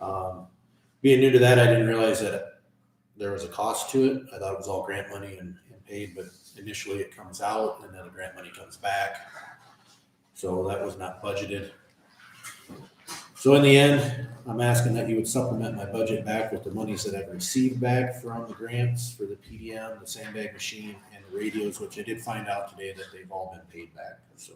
Um, being new to that, I didn't realize that there was a cost to it. I thought it was all grant money and, and paid, but initially it comes out and then the grant money comes back. So that was not budgeted. So in the end, I'm asking that you would supplement my budget back with the monies that I've received back from the grants for the PDM, the sandbag machine, and the radios, which I did find out today that they've all been paid back, so.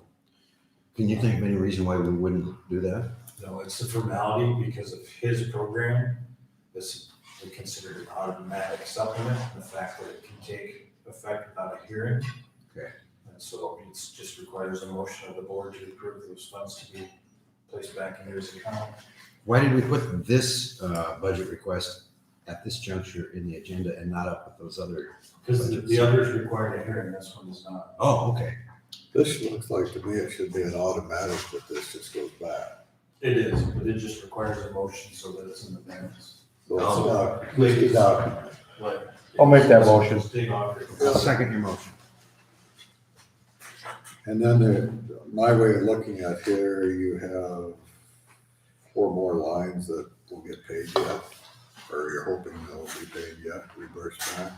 Can you think of any reason why we wouldn't do that? No, it's a formality because of his program. This is considered an automatic supplement, the fact that it can take effect without a hearing. Okay. And so it just requires a motion of the board to approve those funds to be placed back in his account. Why did we put this uh, budget request at this juncture in the agenda and not up with those other? Because the, the others required a hearing, this one does not. Oh, okay. This looks like to me it should be an automatic, but this just goes back. It is, but it just requires a motion so that it's in the minutes. Um, So it's Oh. No. not, leaked out. But- I'll make that motion. State auditor. I'll second your motion. And then there, my way of looking at here, you have four more lines that will get paid yet, or you're hoping they'll be paid yet, reimbursed back.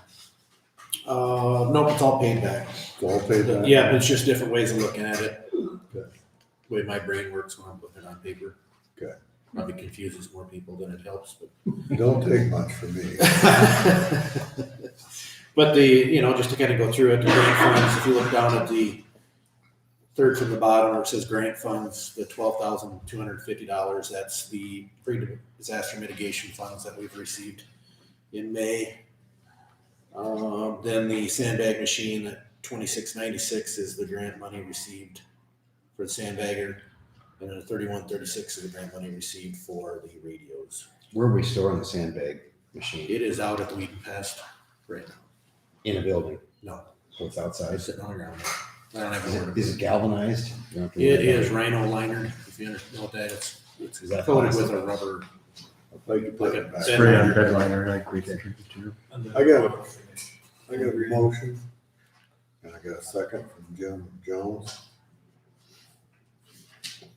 Uh, nope, it's all paid back. It's all paid back. Yeah, it's just different ways of looking at it. The way my brain works when I'm looking on paper. Okay. Probably confuses more people than it helps, but. Don't take much from me. But the, you know, just to kind of go through it, the grant funds, if you look down at the third from the bottom where it says grant funds, the twelve thousand two hundred fifty dollars, that's the pre-disaster mitigation funds that we've received in May. Um, then the sandbag machine at twenty-six ninety-six is the grant money received for the sandbagger. And then thirty-one thirty-six is the grant money received for the radios. Where are we storing the sandbag machine? It is out at the Wheaton Pest right now. In a building? No. So it's outside? It's sitting on the ground. I don't have Is a word. it- is it galvanized? You don't have to worry It about is rhino liner, if you understand what that is. It's Is that coated with plastic? a rubber. Like you put it back. Like a- Spray on bedliner like we did. And then- I got I got a motion, and I got a second from Jim Jones.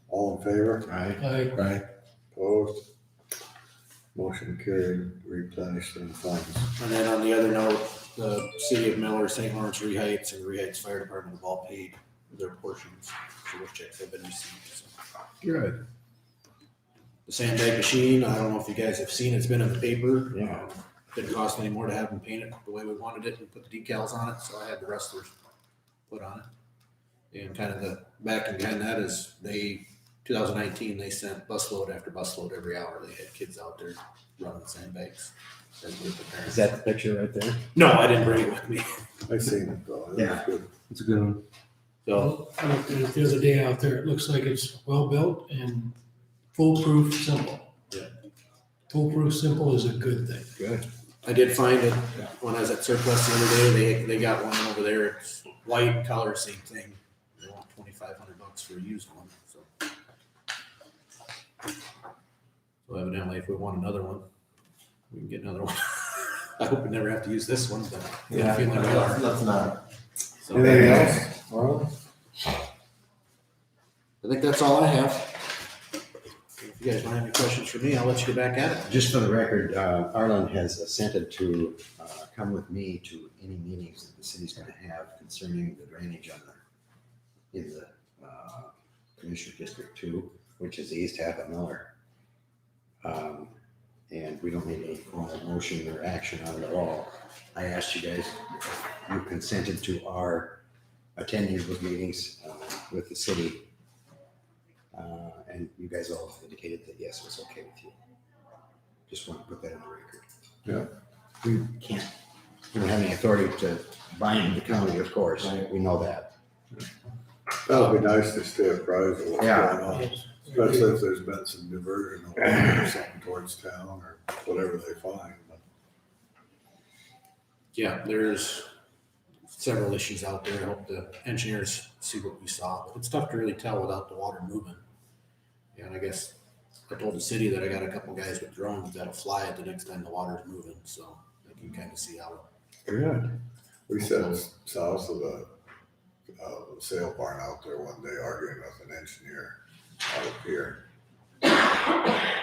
All in favor? Right. Aye. Opposed? Motion carried, replenish the funds. And then on the other note, the city of Miller, St. Lawrence Rehites and Rehites Fire Department have all paid their portions. So those checks have been received. So Good. The sandbag machine, I don't know if you guys have seen, it's been in the paper. Yeah. Um, Didn't cost any more to have them paint it the way we wanted it and put the decals on it, so I had the wrestlers put on it. And kind of the back and behind that is they, two thousand nineteen, they sent busload after busload every hour. They had kids out there running sandbags. as were the parents. Is that the picture right there? No, I didn't bring it with me. I seen it though, it was Yeah. good. It's a good one. So I looked at it the other day out there. It looks like it's well-built and foolproof simple. Yeah. Foolproof simple is a good thing. Good. I did find it when I was at surplus the other day. They, they got one over there. It's white color, same thing. They want twenty-five hundred bucks for a used one, so. So evidently, if we want another one, we can get another one. I hope we never have to use this one, but. I have a feeling we are. not. So, Anything I else? Well, think that's all I have. If you guys don't have any questions for me, I'll let you get back at it. Just for the record, uh, Arlen has assented to uh, come with me to any meetings that the city's going to have concerning the drainage on the, in the uh, Commissioner District Two, which is the east half of Miller. Um, And we don't need any formal motion or action on it at all. I asked you guys, you consented to our attending those meetings uh, with the city. Uh, And you guys all indicated that yes, it was okay with you. Just want to put that on the record. Yeah. We can't, we don't have any authority to bind the county, of course, we know that. that'd be nice to stay apprised of what's going Yeah. on, especially if there's been some diversion or something towards town or whatever they find. Yeah, there's several issues out there. I hope the engineers see what we saw, but it's tough to really tell without the water moving. And I guess I told the city that I got a couple guys with drones that'll fly it the next time the water's moving, so I can kind of see how. Good. We sat south of the, uh, sale barn out there one day arguing with an engineer out of here.